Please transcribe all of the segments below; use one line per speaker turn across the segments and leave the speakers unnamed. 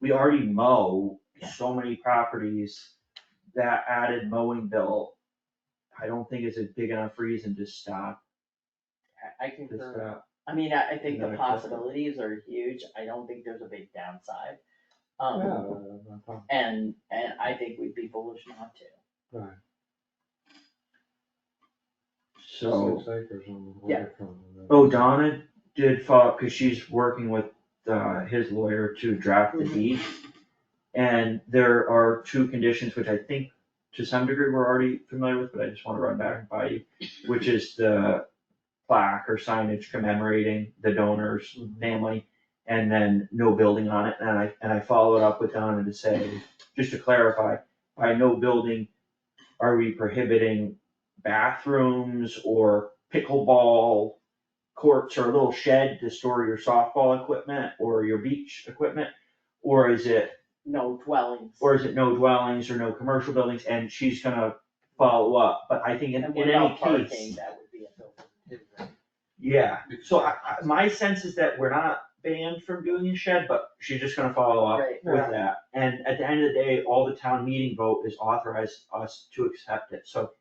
we already mow so many properties, that added mowing bill, I don't think it's a big enough reason to stop,
I- I
to
concur.
stop.
I mean, I, I think
Not
the
acceptable.
possibilities are huge, I don't think there's a big downside. Um,
No, no, no.
and, and I think we'd be foolish not to.
So,
Six acres on the
Yeah.
waterfront. and then-
oh, Donna did follow, cause she's working with, uh, his lawyer to draft the deed. And there are two conditions, which I think to some degree we're already familiar with, but I just wanna run back by you, which is the plaque or signage commemorating the donor's family, and then no building on it, and I, and I followed up with Donna to say, just to clarify, by no building, are we prohibiting bathrooms or pickleball courts or a little shed to store your softball equipment or your beach equipment? Or is it,
No dwellings.
or is it no dwellings or no commercial buildings, and she's gonna follow up, but I think in,
And
in
what
any
about
case.
parking, that would be a building too, right?
Yeah, so I, I, my sense is that we're not banned from doing a shed, but she's just gonna follow up
Right.
with that. And at the end of the day, all the town meeting vote is authorized us to accept it, so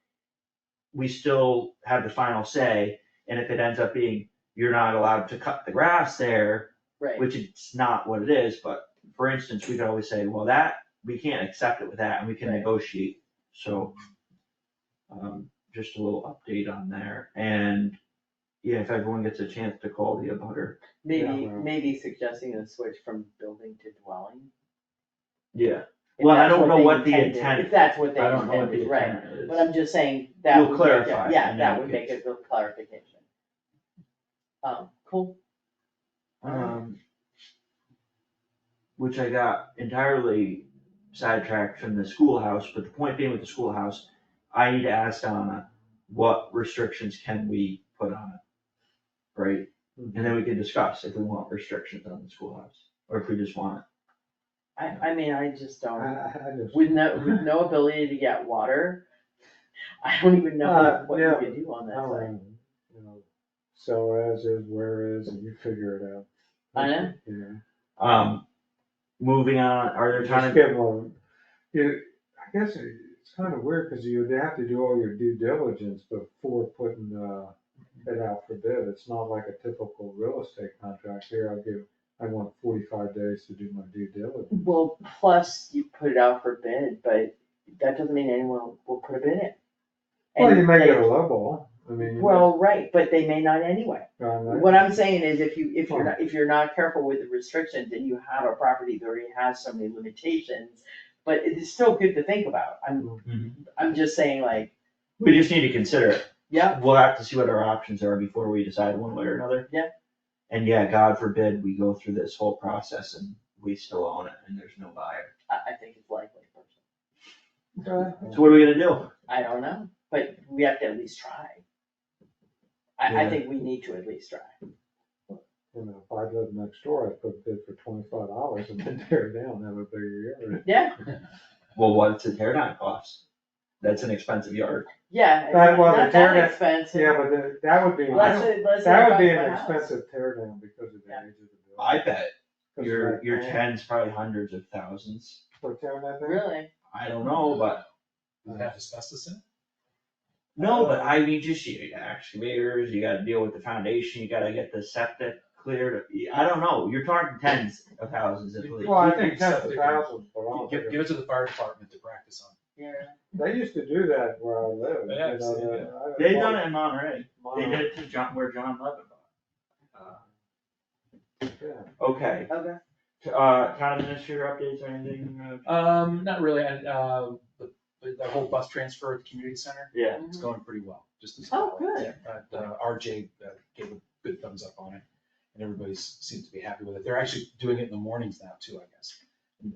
we still have the final say, and if it ends up being, you're not allowed to cut the grass there,
Right,
which it's not what it is, but for instance, we could always say, well, that, we can't accept it with that, and we can
Right.
negotiate, so. Um, just a little update on there, and, yeah, if everyone gets a chance to call the abutter,
maybe,
Yeah.
maybe suggesting a switch from building to dwelling.
yeah,
if
Well, I
that's
don't know
they
what the
intended-
intent-
If that's
I
what they
don't know what the
intended, right,
intent is.
but I'm just saying, that
We'll
would make it-
clarify
yeah,
in
that
any
would make
case.
it a clarification. Um, cool,
Um. Which I got entirely sidetracked from the schoolhouse, but the point being with the schoolhouse, I need to ask Donna, what restrictions can we put on it? Right, and then we can discuss if we want restrictions on the schoolhouse, or if we just want
I, I mean, I just
I,
don't,
I I just.
with no, with no ability to get water, I don't even know
Uh,
what you
yeah. Oh.
could do on that
how
side.
long, you know, So as is, where is, and you figure it out.
I know.
Yeah.
it. Um, moving on, are there
Just
time,
give them, a- you, I guess it- it's kind of weird, cause you'd have to do all your due diligence before putting, uh, it out for bid. It's not like a typical real estate contract here. I give, I want forty-five days to do my due diligence.
Well, plus you put it out for bid, but that doesn't mean anyone will put a bid in.
Well,
And
you may
they-
get a level, I mean. you
Well, right, but they may not anyway.
may- I know.
What I'm saying is if you, if you're not, if you're not careful with the restrictions and you have a property that already has so many limitations, but it's still good to think about.
Mhm.
I'm, I'm just saying like,
we just need to consider it.
yeah,
We'll have to see what our options are before we decide one way or another.
Yeah.
And yeah, God forbid we go through this whole process and we still own it and there's no buyer.
I, I think it's likely.
So what are we gonna do?
I don't know, but we have to at least try. I, I
Yeah.
think we need to at least try.
you know, if I lived next door, I'd put a bid for twenty-five dollars and then tear it down, have a bigger yard.
Yeah,
Well, what's the tear down cost? That's an expensive yard.
yeah,
That was a
not that
target.
expensive.
Yeah, but that, that would be,
Less,
that
than- less than
would be
the cost
an
of a house.
expensive tear down because of the
Yeah.
age of the building.
I bet your, your
ten
tens, probably hundreds of thousands.
For tearing that thing?
Really?
I don't know, but,
Does it have asbestos in it?
no, but I mean, just you got excavators, you gotta deal with the foundation, you gotta get the septic cleared. I don't know, you're talking tens of thousands at least.
Well, I
You
think
think
tens of
septic-
thousands, but I
Oh,
don't
Give,
think
give
it-
it to the fire department to practice on.
Yeah.
they used to do that where I live,
Yeah, I've
you know,
seen
the-
it.
I-
They've done it in Monterey.
my-
They did it to John, where John Levin bought.
Uh-huh.
yeah.
Okay,
Okay.
t- uh, town administrator updates or anything, uh,
Um, not really, I, uh, the, the whole bus transfer at the community center,
yeah,
it's
Mm-hmm.
going pretty well, just as.
Oh, good.
But, uh, RJ uh, gave a good thumbs up on it, and everybody's, seems to be happy with it, they're actually doing it in the mornings now too, I guess,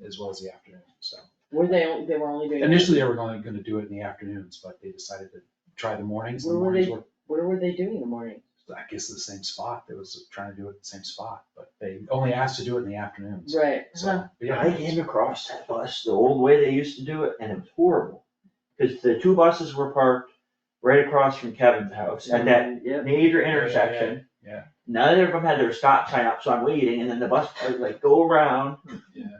as well as the afternoon, so.
Were they, they were only doing.
Initially, they were only gonna do it in the afternoons, but they decided to try the mornings, the
Where were
mornings
they-
were
Where were they doing in the morning?
I guess the same spot, that was trying to do it at the same spot, but they only asked to do it in the afternoons,
Right.
so, but yeah.
I came across that bus the old way they used to do it, and it was horrible. Cause the two buses were parked right across from Kevin's house at that
Yeah.
major
yeah,
intersection.
yeah.
Neither of them had their stop sign up, so I'm waiting, and then the bus, was like, go around,
Yeah.